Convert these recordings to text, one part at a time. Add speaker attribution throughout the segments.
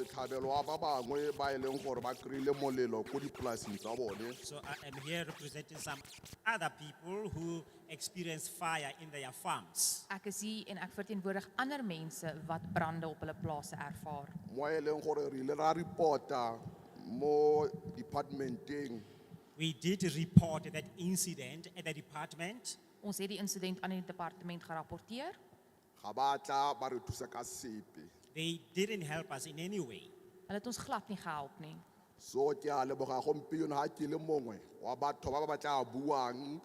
Speaker 1: setlhabelo wa ba bangwe ba e leng gore ba kry-ile molelo ko dipolaseng tsa bone
Speaker 2: So I am here representing some other people who experience fire in their farms.
Speaker 3: Ek is hier en ek verteenwoordig ander mense wat brande op hulle plase ervaar.
Speaker 1: mo e leng gore re ile ra report-a mo departmenteng
Speaker 2: We did report that incident at the department.
Speaker 3: Ons het die insident aan die departement gerapporteer.
Speaker 1: ga ba tla ba re thusa ka sepe
Speaker 2: They didn't help us in any way.
Speaker 3: Hulle het ons glad nie gehelp nie.
Speaker 1: so ke a leboga gompieno ga ke le mongwe wa batho ba ba ba tla buang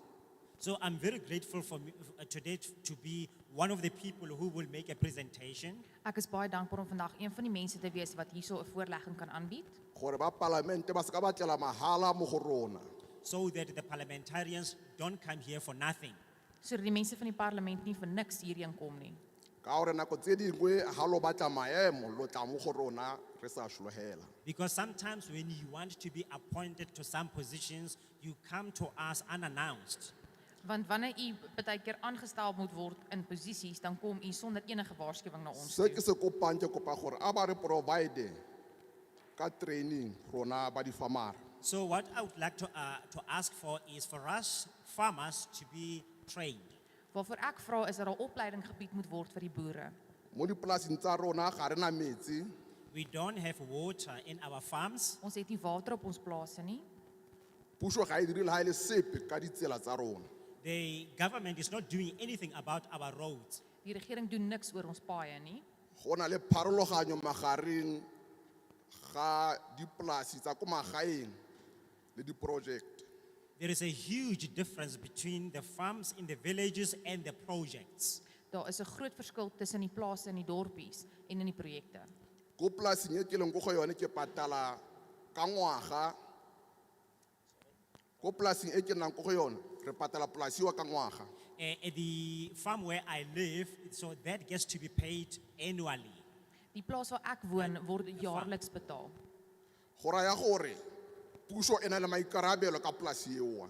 Speaker 2: So I'm very grateful for me, uh, today t- to be one of the people who will make a presentation
Speaker 3: Ek is baie dankbaar om vandag een van die mense te wees wat hierso 'n voorlegging kan aanbied
Speaker 1: gore ba palamente ba se ka batlela mahala mo go rona
Speaker 2: so that the parliamentarians don't come here for nothing.
Speaker 3: sodat die mense van die parlement nie vir niks hierheen kom nie.
Speaker 1: ka gore nako tse dingwe ga lo batla maemo lo tla mo go rona re sa šologela
Speaker 2: Because sometimes when you want to be appointed to some positions, you come to us unannounced.
Speaker 3: Want wanneer u baie keer aangestel moet word in posisies, dan kom u sonder enige waarskuwing na ons
Speaker 1: se ke
Speaker 3: toe.
Speaker 1: se kopang ke kopa gore a ba re provide ka training rona ba difamara
Speaker 2: So what I would like to, uh, to ask for is for us farmers to be trained.
Speaker 3: Waarvoor ek vra is dat daar opleiding gebied moet word vir die boere.
Speaker 1: mo dipolaseng tsa rona ga re na metsi
Speaker 2: We don't have water in our farms.
Speaker 3: Ons het nie water op ons plase nie.
Speaker 1: puso ga e dire le ga e le sepe ka ditsela tsa rona
Speaker 2: The government is not doing anything about our roads.
Speaker 3: Die regering doen niks oor ons paaie nie.
Speaker 1: go na le pharologanyo magareng ga dipolasi tsa ko magaeng le diprojekte
Speaker 2: There is a huge difference between the farms in the villages and the projects.
Speaker 3: Daar is 'n groot verskil tussen die plase en die dorpies en in die projekte.
Speaker 1: ko polaseng e ke leng ko go yone ke patala ka ngwaga ko polaseng e ke nnang ko go yone re patala polasiwa ka ngwaga
Speaker 2: Eh, at the farm where I live, so that gets to be paid annually.
Speaker 3: Die plaas waar ek woon word jaarliks betaal.
Speaker 1: go raya gore puso e na le maikarabelo ka polasi eo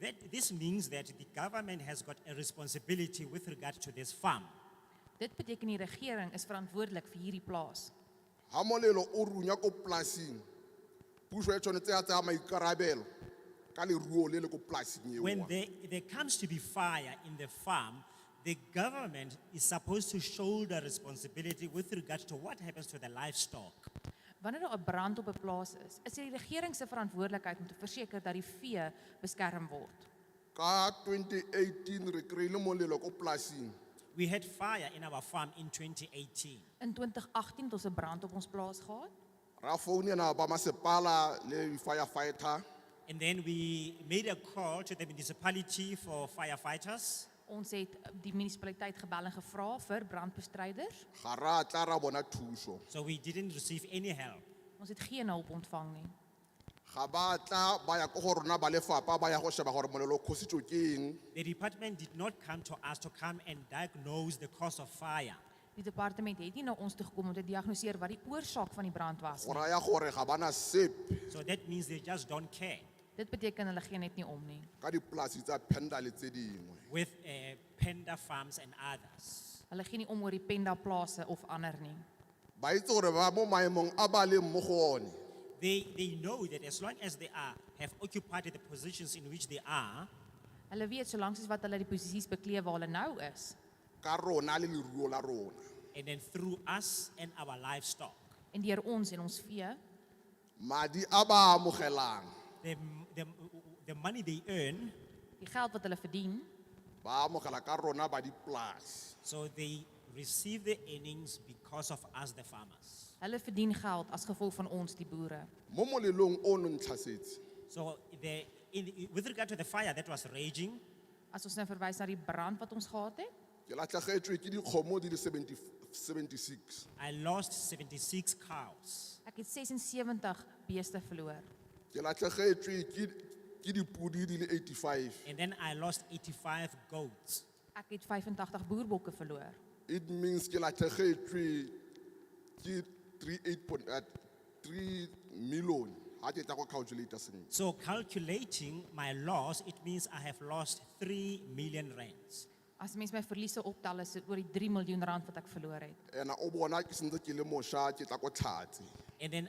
Speaker 2: That, this means that the government has got a responsibility with regard to this farm.
Speaker 3: Dit beteken die regering is verantwoordelik vir hierdie plaas.
Speaker 1: ga molelo o runya ko polasing puso e tshwanetse ya tsaya maikarabelo ka leruo le le ko polasing
Speaker 2: When
Speaker 1: eo
Speaker 2: there, there comes to be fire in the farm, the government is supposed to shoulder responsibility with regard to what happens to the livestock.
Speaker 3: Wanneer daar 'n brand op 'n plaas is, is dit die regering se verantwoordelikheid om te verseker dat die vee beskerm word.
Speaker 1: ka 2018 re kry-ile molelo ko polasing
Speaker 2: We had fire in our farm in 2018.
Speaker 3: In 2018 het ons 'n brand op ons plaas gehad.
Speaker 1: ra founela ba masepala le firefighter
Speaker 2: And then we made a call to the municipality for firefighters.
Speaker 3: Ons het die munisipaliteit gebel en gevra vir brandbestryders.
Speaker 1: ga ra tla ra bona thuso
Speaker 2: So we didn't receive any help.
Speaker 3: Ons het geen hulp ontvang nie.
Speaker 1: ga ba tla ba ya ko go rona ba lefapa ba ya go sheba gore molelo o kgositswe ke eng
Speaker 2: The department did not come to us to come and diagnose the cause of fire.
Speaker 3: Die departement het nie na ons toe gekom om te diagnoseer wat die oorsaak van die brand was
Speaker 1: go
Speaker 3: nie.
Speaker 1: raya gore ga bana sepe
Speaker 2: So that means they just don't care
Speaker 3: Dit beteken hulle gee net nie om nie.
Speaker 1: ka dipolasi tsa penda le tse dingwe
Speaker 2: with uh, panda farms and others.
Speaker 3: Hulle gee nie om oor die Penda plase of ander nie.
Speaker 1: ba itse gore ba mo maemong a ba leng mo go one
Speaker 2: They, they know that as long as they are, have occupied the positions in which they are,
Speaker 3: Hulle weet solank as wat hulle die posisies beklee waar hulle nou is
Speaker 1: ka rona le leruo la rona
Speaker 2: and then through us and our livestock,
Speaker 3: en deur ons en ons vee,
Speaker 1: madi a ba amogelang
Speaker 2: the, the, the money they earn,
Speaker 3: die geld wat hulle verdien,
Speaker 1: ba amogela ka rona ba dipolasi
Speaker 2: so they receive the earnings because of us, the farmers.
Speaker 3: hulle verdien geld as gevolg van ons die boere.
Speaker 1: mo molelong o no ntlhasetse
Speaker 2: So the, in, with regard to the fire that was raging,
Speaker 3: As ons nou verwys na die brand wat ons gehad het,
Speaker 1: ke latlhagetswe ke dikgomo di le 70 76
Speaker 2: I lost 76 cows.
Speaker 3: ek het 76 beeste verloor.
Speaker 1: ke latlhagetswe ke- ke dipodi di le 85
Speaker 2: And then I lost 85 goats.
Speaker 3: Ek het 85 boerbokke verloor.
Speaker 1: it means ke latlhegetswe ke 38 point- uh, 3 million ha ke tla go calculator sentle
Speaker 2: So calculating my loss, it means I have lost 3 million rands.
Speaker 3: As mens my verliese optel is dit oor die 3 miljoen rand wat ek verloor het.
Speaker 1: And I obona ki sende ki le mosha, ki tako tlhatse.
Speaker 2: And then